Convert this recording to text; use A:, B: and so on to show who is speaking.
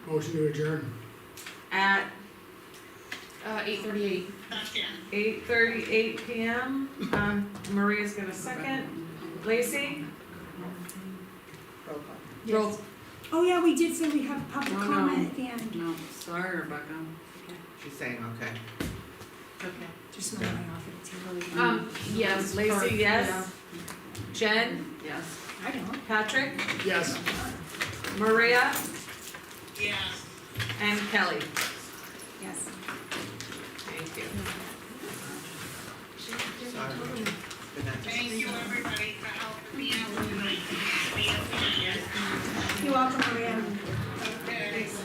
A: Motion to adjourn.
B: at
C: Uh, eight thirty-eight.
B: eight thirty-eight PM. Um, Maria's gonna second. Lacey?
D: Roll call.
C: Roll.
E: Oh, yeah, we did say we have public
D: Oh, no.
E: comment at the end,
D: No, sorry Rebecca. She's saying okay.
C: Okay.
E: just moving off of the table.
D: Oh.
C: Um, yes.
B: Lacey,
C: sorry.
B: yes. Jen?
D: Yes.
E: I don't.
B: Patrick?
A: Yes.
B: Maria?
D: Yes.
B: And Kelly?
E: Yes.